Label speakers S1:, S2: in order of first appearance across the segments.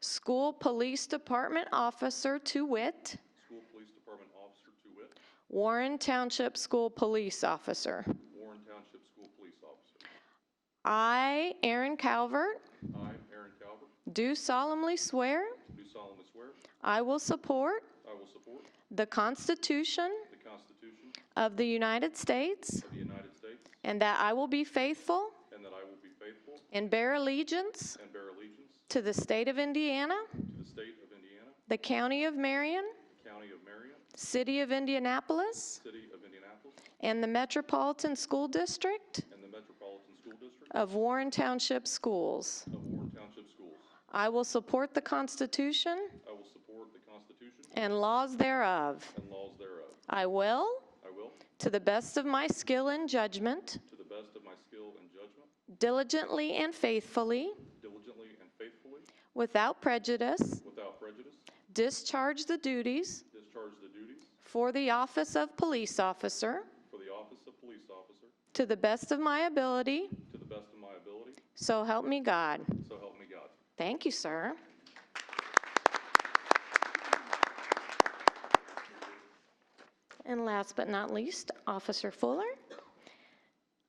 S1: School Police Department Officer to wit,
S2: School Police Department Officer to wit,
S1: Warren Township School Police Officer.
S2: Warren Township School Police Officer.
S1: I, Aaron Calvert,
S2: I, Aaron Calvert,
S1: do solemnly swear
S2: do solemnly swear
S1: I will support
S2: I will support
S1: the Constitution
S2: the Constitution
S1: of the United States
S2: of the United States
S1: and that I will be faithful
S2: and that I will be faithful
S1: and bear allegiance
S2: and bear allegiance
S1: to the state of Indiana,
S2: to the state of Indiana,
S1: the county of Marion,
S2: county of Marion,
S1: city of Indianapolis,
S2: city of Indianapolis,
S1: and the Metropolitan School District
S2: and the Metropolitan School District
S1: of Warren Township Schools.
S2: of Warren Township Schools.
S1: I will support the Constitution
S2: I will support the Constitution
S1: and laws thereof.
S2: and laws thereof.
S1: I will,
S2: I will,
S1: to the best of my skill and judgment,
S2: to the best of my skill and judgment,
S1: diligently and faithfully,
S2: diligently and faithfully,
S1: without prejudice,
S2: without prejudice,
S1: discharge the duties
S2: discharge the duties
S1: for the office of police officer
S2: for the office of police officer
S1: to the best of my ability,
S2: to the best of my ability,
S1: so help me God.
S2: so help me God.
S1: Thank you, sir. And last but not least, Officer Fuller.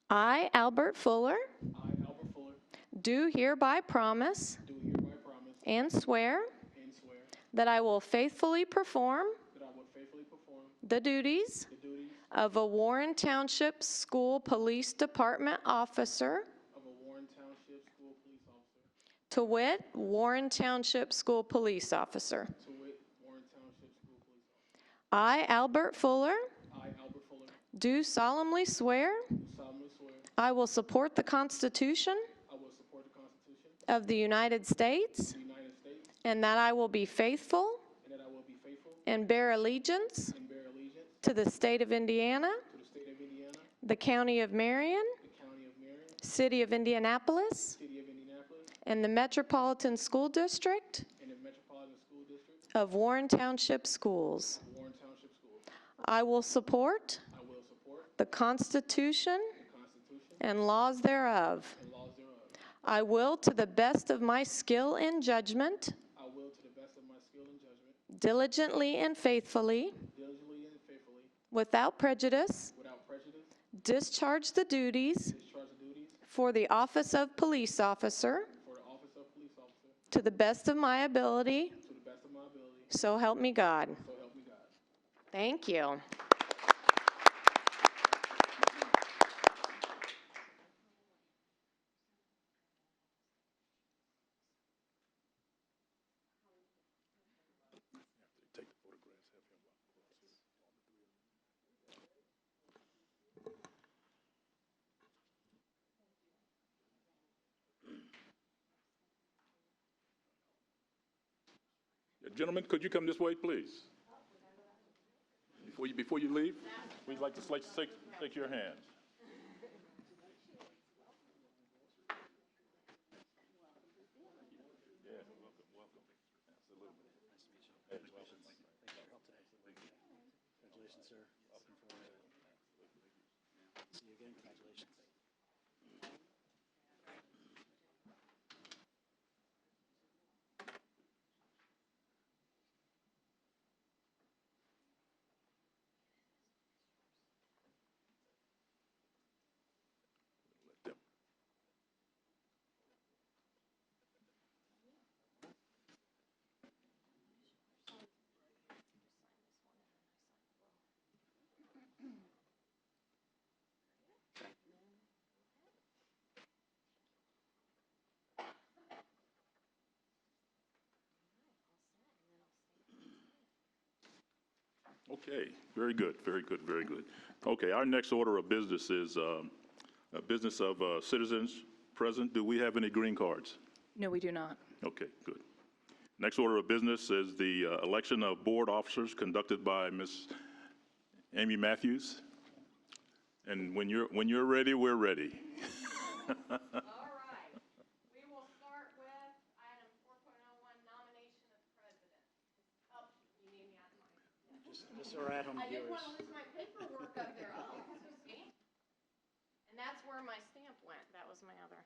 S1: I, Albert Fuller,
S3: I, Albert Fuller,
S1: do hereby promise
S3: do hereby promise
S1: and swear
S3: and swear
S1: that I will faithfully perform
S3: that I will faithfully perform
S1: the duties
S3: the duties
S1: of a Warren Township School Police Department officer,
S3: of a Warren Township School Police Officer
S1: to wit, Warren Township School Police Officer.
S3: to wit, Warren Township School Police Officer.
S1: I, Albert Fuller,
S3: I, Albert Fuller,
S1: do solemnly swear
S3: do solemnly swear
S1: I will support the Constitution
S3: I will support the Constitution of
S1: of the United States
S3: the United States
S1: and that I will be faithful
S3: and that I will be faithful
S1: and bear allegiance
S3: and bear allegiance
S1: to the state of Indiana,
S3: to the state of Indiana,
S1: the county of Marion,
S3: the county of Marion,
S1: city of Indianapolis,
S3: city of Indianapolis,
S1: and the Metropolitan School District
S3: and the Metropolitan School District
S1: of Warren Township Schools.
S3: of Warren Township School.
S1: I will support
S3: I will support
S1: the Constitution
S3: the Constitution
S1: and laws thereof.
S3: and laws thereof.
S1: I will, to the best of my skill and judgment,
S3: I will, to the best of my skill and judgment,
S1: diligently and faithfully,
S3: diligently and faithfully,
S1: without prejudice,
S3: without prejudice,
S1: discharge the duties
S3: Discharge the duties
S1: for the office of police officer
S3: for the office of police officer
S1: to the best of my ability,
S3: to the best of my ability,
S1: so help me God.
S3: so help me God.
S1: Thank you.
S2: Gentlemen, could you come this way, please? Before you, before you leave, we'd like to sla- shake, shake your hands. Yeah, welcome, welcome. Absolutely. Hey, welcome.
S4: Congratulations, sir. Looking forward to it. See you again. Congratulations.
S2: Okay, very good, very good, very good. Okay, our next order of business is um, a business of uh, citizens present. Do we have any green cards?
S5: No, we do not.
S2: Okay, good. Next order of business is the uh, election of board officers conducted by Ms. Amy Matthews. And when you're, when you're ready, we're ready.
S6: All right. We will start with item 4.01, nomination of president. Oh, you need me on my.
S4: Just, just so our at-home
S6: I didn't
S4: viewers.
S6: want to lose my paperwork up there. Oh, so stamp- And that's where my stamp went. That was my other.